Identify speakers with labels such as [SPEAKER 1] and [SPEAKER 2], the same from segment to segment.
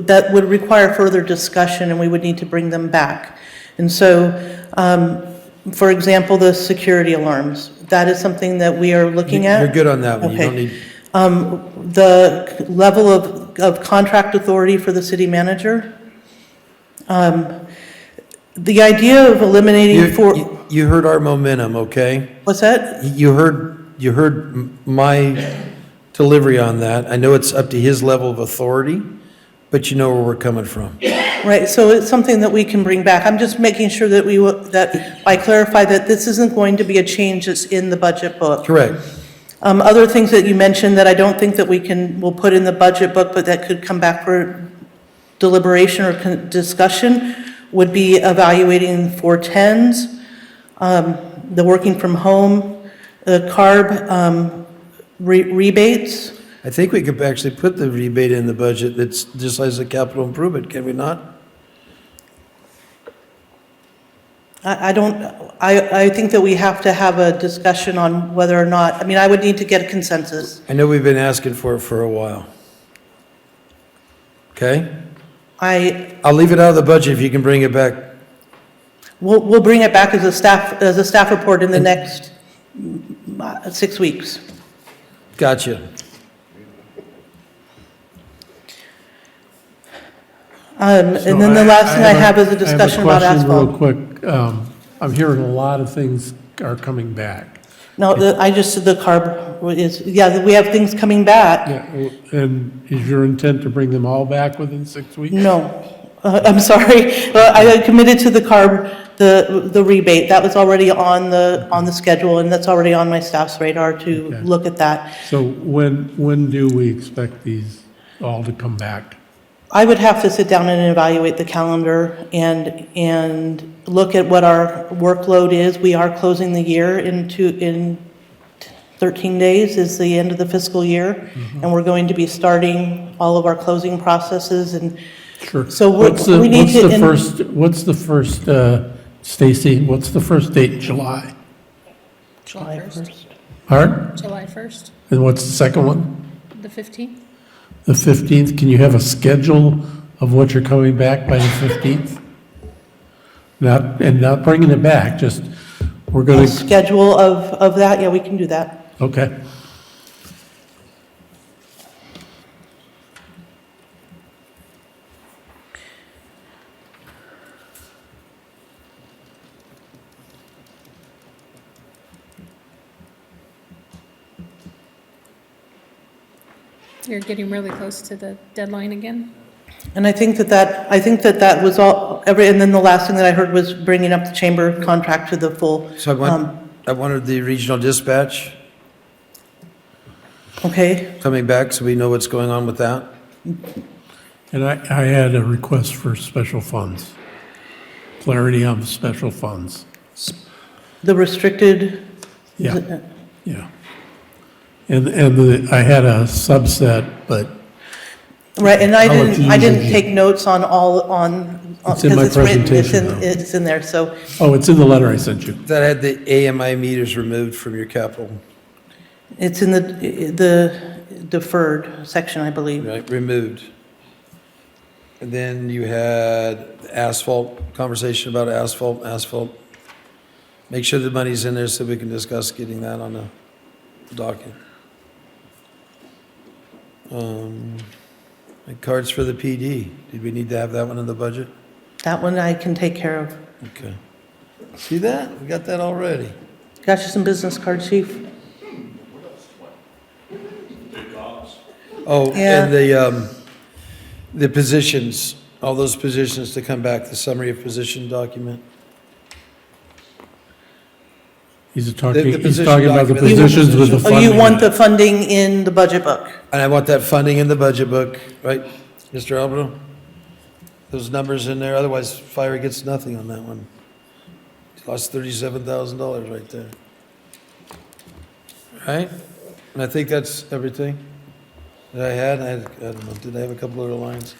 [SPEAKER 1] that would require further discussion, and we would need to bring them back. And so, um, for example, the security alarms, that is something that we are looking at.
[SPEAKER 2] You're good on that one. You
[SPEAKER 1] Okay.
[SPEAKER 2] don't need,
[SPEAKER 1] The level of, of contract authority for the city manager. Um, The idea of eliminating four,
[SPEAKER 2] you, you heard our momentum, okay?
[SPEAKER 1] what's that?
[SPEAKER 2] You heard, you heard m- my delivery on that. I know it's up to his level of authority, but you know where we're coming from.
[SPEAKER 1] Right, so it's something that we can bring back. I'm just making sure that we, will- that I clarify that this isn't going to be a change that's in the budget book.
[SPEAKER 2] Correct.
[SPEAKER 1] Um, Other things that you mentioned that I don't think that we can, will put in the budget book, but that could come back for deliberation or con- discussion, would be evaluating 410s, um, the working from home, the CARB um, re- rebates.
[SPEAKER 2] I think we could actually put the rebate in the budget that's just as a capital improvement, can we not?
[SPEAKER 1] I I don't, I I think that we have to have a discussion on whether or not, I mean, I would need to get a consensus.
[SPEAKER 2] I know we've been asking for it for a while. Okay?
[SPEAKER 1] I,
[SPEAKER 2] I'll leave it out of the budget if you can bring it back.
[SPEAKER 1] we'll we'll bring it back as a staff, as a staff report in the next mm, uh, six weeks.
[SPEAKER 2] Gotcha.
[SPEAKER 1] Um, And then the
[SPEAKER 3] So
[SPEAKER 1] last thing I
[SPEAKER 3] a-
[SPEAKER 1] have is a
[SPEAKER 3] have
[SPEAKER 1] discussion about
[SPEAKER 3] question
[SPEAKER 1] asphalt.
[SPEAKER 3] real quick. Um, I'm hearing a lot of things are coming back.
[SPEAKER 1] No, the- I just, said the carb is, yeah, we have things coming back.
[SPEAKER 3] Yeah, And is your intent to bring them all back within six weeks?
[SPEAKER 1] No, Uh, I'm sorry. Uh, I committed to the carb, the the rebate. That was already on the, on the schedule, and that's already on my staff's radar to
[SPEAKER 3] Okay.
[SPEAKER 1] look at that.
[SPEAKER 3] So when, when do we expect these all to come back?
[SPEAKER 1] I would have to sit down and evaluate the calendar and, and look at what our workload is. We are closing the year in two, in 13 days is the end of the fiscal year, and we're going to be starting all of our closing processes and
[SPEAKER 3] Sure.
[SPEAKER 1] So we-
[SPEAKER 3] What's the-
[SPEAKER 1] we need
[SPEAKER 3] what's
[SPEAKER 1] to
[SPEAKER 3] the
[SPEAKER 1] in-
[SPEAKER 3] first, what's the first, uh, Stacy, what's the first date in July?
[SPEAKER 1] July 1st.
[SPEAKER 3] Art?
[SPEAKER 4] July 1st,
[SPEAKER 3] And what's the second one?
[SPEAKER 4] the 15th?
[SPEAKER 3] The 15th? Can you have a schedule of what you're coming back by the 15th? Not, and not bringing it back, just, we're
[SPEAKER 1] A
[SPEAKER 3] going to,
[SPEAKER 1] Schedule of, of that, yeah, we can do that.
[SPEAKER 3] okay.
[SPEAKER 4] You're getting really close to the deadline again.
[SPEAKER 1] And I think that that, I think that that was all, every, and then the last thing that I heard was bringing up the chamber contract to the full.
[SPEAKER 2] So I
[SPEAKER 1] um,
[SPEAKER 2] want, I wanted the regional dispatch
[SPEAKER 1] Okay,
[SPEAKER 2] coming back so we know what's going on with that.
[SPEAKER 3] And I, I had a request for special funds, clarity on the special funds.
[SPEAKER 1] the restricted
[SPEAKER 3] Yeah, yeah. And, and the- I had a subset, but
[SPEAKER 1] Right, and I
[SPEAKER 3] I'll let
[SPEAKER 1] didn't,
[SPEAKER 3] you
[SPEAKER 1] I
[SPEAKER 3] use it
[SPEAKER 1] didn't
[SPEAKER 3] here.
[SPEAKER 1] take notes on all, on, on-
[SPEAKER 3] It's in my
[SPEAKER 1] because it's written, it's
[SPEAKER 3] presentation,
[SPEAKER 1] in,
[SPEAKER 3] though.
[SPEAKER 1] it's in there, so,
[SPEAKER 3] Oh, it's in the letter I sent you.
[SPEAKER 2] That had the AMI meters removed from your capital,
[SPEAKER 1] it's in the, the deferred section, I believe.
[SPEAKER 2] right, removed. And then you had asphalt, conversation about asphalt, asphalt. Make sure the money's in there so we can discuss getting that on the docket. Um, and Cards for the PD, did we need to have that one in the budget?
[SPEAKER 1] That one I can take care of.
[SPEAKER 2] Okay. See that? We got that already.
[SPEAKER 1] Got you some business cards, chief?
[SPEAKER 2] Oh,
[SPEAKER 1] Yeah.
[SPEAKER 2] and the, um, the positions, all those positions to come back, the summary of position document.
[SPEAKER 3] He's
[SPEAKER 2] The-
[SPEAKER 3] talking,
[SPEAKER 2] the
[SPEAKER 3] he's
[SPEAKER 2] position
[SPEAKER 3] talking about the
[SPEAKER 2] document.
[SPEAKER 3] positions with the
[SPEAKER 1] Oh,
[SPEAKER 3] funding.
[SPEAKER 1] you want the funding in the budget book?
[SPEAKER 2] And I want that funding in the budget book, right, Mr. Alberto? Those numbers in there, otherwise fire gets nothing on that one. Lost thirty-seven thousand dollars right there. Right? And I think that's everything that I had. I had, I don't know, did I have a couple other lines?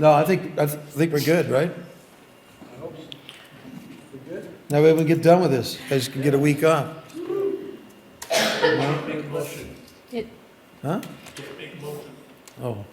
[SPEAKER 2] No, I think, I th- think we're good, right? Now we can get done with this. You Guys can get a week off,
[SPEAKER 4] It,
[SPEAKER 2] huh? Oh.